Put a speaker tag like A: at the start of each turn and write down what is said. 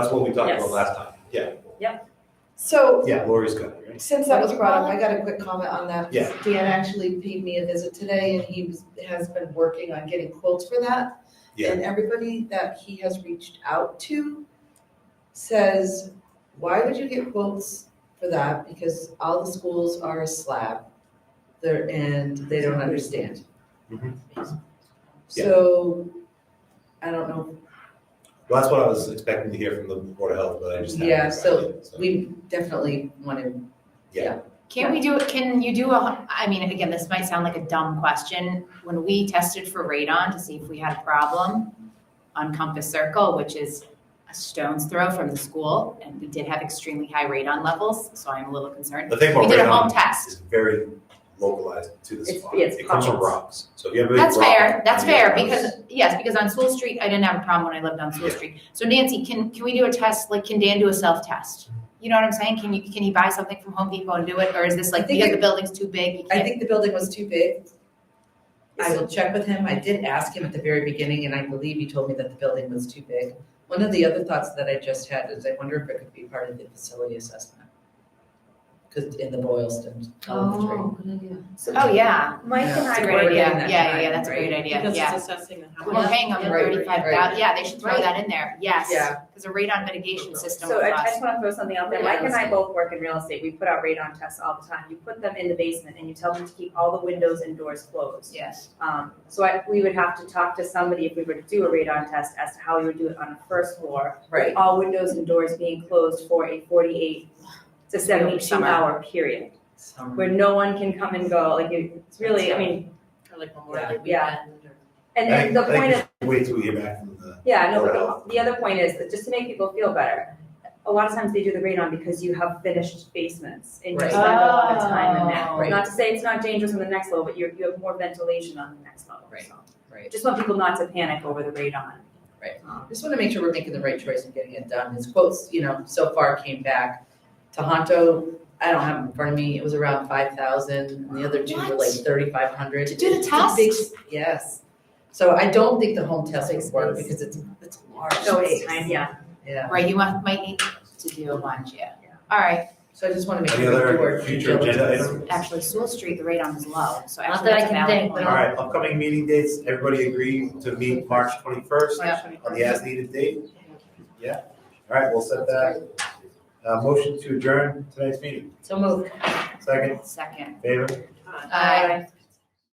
A: That's what we talked about
B: Yes.
A: last time. Yeah,
C: So,
A: yeah, Lori's got it, right?
C: since that was brought up, I got a quick comment on that.
A: Yeah.
C: Dan actually paid me a visit today and he was, has been working on getting quotes for that.
A: Yeah.
C: And everybody that he has reached out to says, why would you get quotes for that? Because all the schools are a slab. They're, and they don't understand.
A: Mhm. Yeah.
C: So, I don't know,
A: Well, that's what I was expecting to hear from the Board of Health, but I just. haven't
C: Yeah,
A: heard
C: so
A: about it,
C: we definitely want to,
D: Can we do, can you do a, I mean, again, this might sound like a dumb question. When we tested for radon to see if we had a problem on Compass Circle, which is a stone's throw from the school, and we did have extremely high radon levels, so I'm a little concerned.
A: The thing
D: We
A: about
D: did a home
A: radon
D: test.
A: is very localized to the
B: It's-
A: spot.
B: yeah, it's
A: It comes from
B: pockets.
A: rocks, so if you have a big
D: That's
A: rock
D: fair, that's
A: in your
D: fair,
A: house-
D: because, yes, because on Sewell Street, I didn't have a problem when I lived on Sewell
A: Yeah.
D: Street. So Nancy, can, can we do a test, like, can Dan do a self-test? You know what I'm saying? Can you, can he buy something from Home Depot and do it, or is this
C: I
D: like,
C: think
D: because
C: it-
D: the building's too big, you
C: I
D: can't?
C: think the building was too big I will check with him. I did ask him at the very beginning, and I believe he told me that the building was too big. One of the other thoughts that I just had is I wonder if it could be part of the facility assessment. Because in the Boylston Elementary.
D: Oh, yeah.
B: Mike and
C: Yeah.
B: I
D: That's a
C: Right,
D: great
B: were,
D: idea,
C: yeah,
D: yeah,
C: that
D: yeah,
C: time,
D: yeah, that's a great
C: right?
D: idea,
B: because
D: yeah.
B: it's assessing the house.
D: We're paying them
C: Right,
D: thirty-five
C: right.
D: thousand, yeah, they should throw
B: Right.
D: that in there, yes.
C: Yeah.
D: Cause a radon mitigation system
B: So
D: with
B: I, I
D: us,
B: just wanna throw something out there, Mike and I both work in real estate, we put out radon tests all the time, you put them in the basement and you tell them to keep all the windows and doors closed.
D: yes.
B: Um, so I, we would have to talk to somebody if we were to do a radon test as to how we would do it on the first floor.
C: Right.
B: All windows and doors being closed for a forty-eight to seventy-two
D: Summer.
B: hour period, where no one can come and go, like, it- it's really, I mean,
C: Like
B: yeah.
A: I
B: And
A: think-
B: and the
A: I think
B: point
A: we
B: is,
A: should Wait till we hear back from the,
B: Yeah, no,
A: Or health.
B: but the, the other point is, that just to make people feel better, a lot of times they do the radon because you have finished basements and you
C: Right.
B: spend a lot of time in
D: Oh.
B: that.
C: Right.
B: Not to say it's not dangerous on the next level, but you're, you have more ventilation on the next level,
C: Right.
B: so.
C: Right.
B: Just want people not to panic over the radon.
C: Right.
B: Um,
C: Just want to make sure we're making the right choice and getting it done. His quotes, you know, so far came back. Tohoto, I don't have them in front of me, it was around five thousand, and the other two were like
D: What?
C: thirty-five hundred.
D: To do the test?
C: Yes. So I don't think the home test would work
D: Space.
C: because it's, it's large.
B: So it's time, yeah,
C: Yeah.
D: Right, you might, might need to do a bunch, yeah.
B: Yeah.
D: Alright,
C: So I just want to make
A: any
C: sure the
A: other
C: board.
A: future agenda items?
D: actually, Sewell Street, the radon is low, so
E: Not that
D: actually
E: I
D: that's a
E: can
D: valid
E: think, but
D: point.
A: All right, upcoming meeting dates, everybody agree to meet March twenty-first on the as-needed date? Yeah, all right, we'll set that. Uh, motion to adjourn tonight's meeting,
C: So moved.
A: second,
D: Second.
A: favor?
B: Uh,
D: Aye.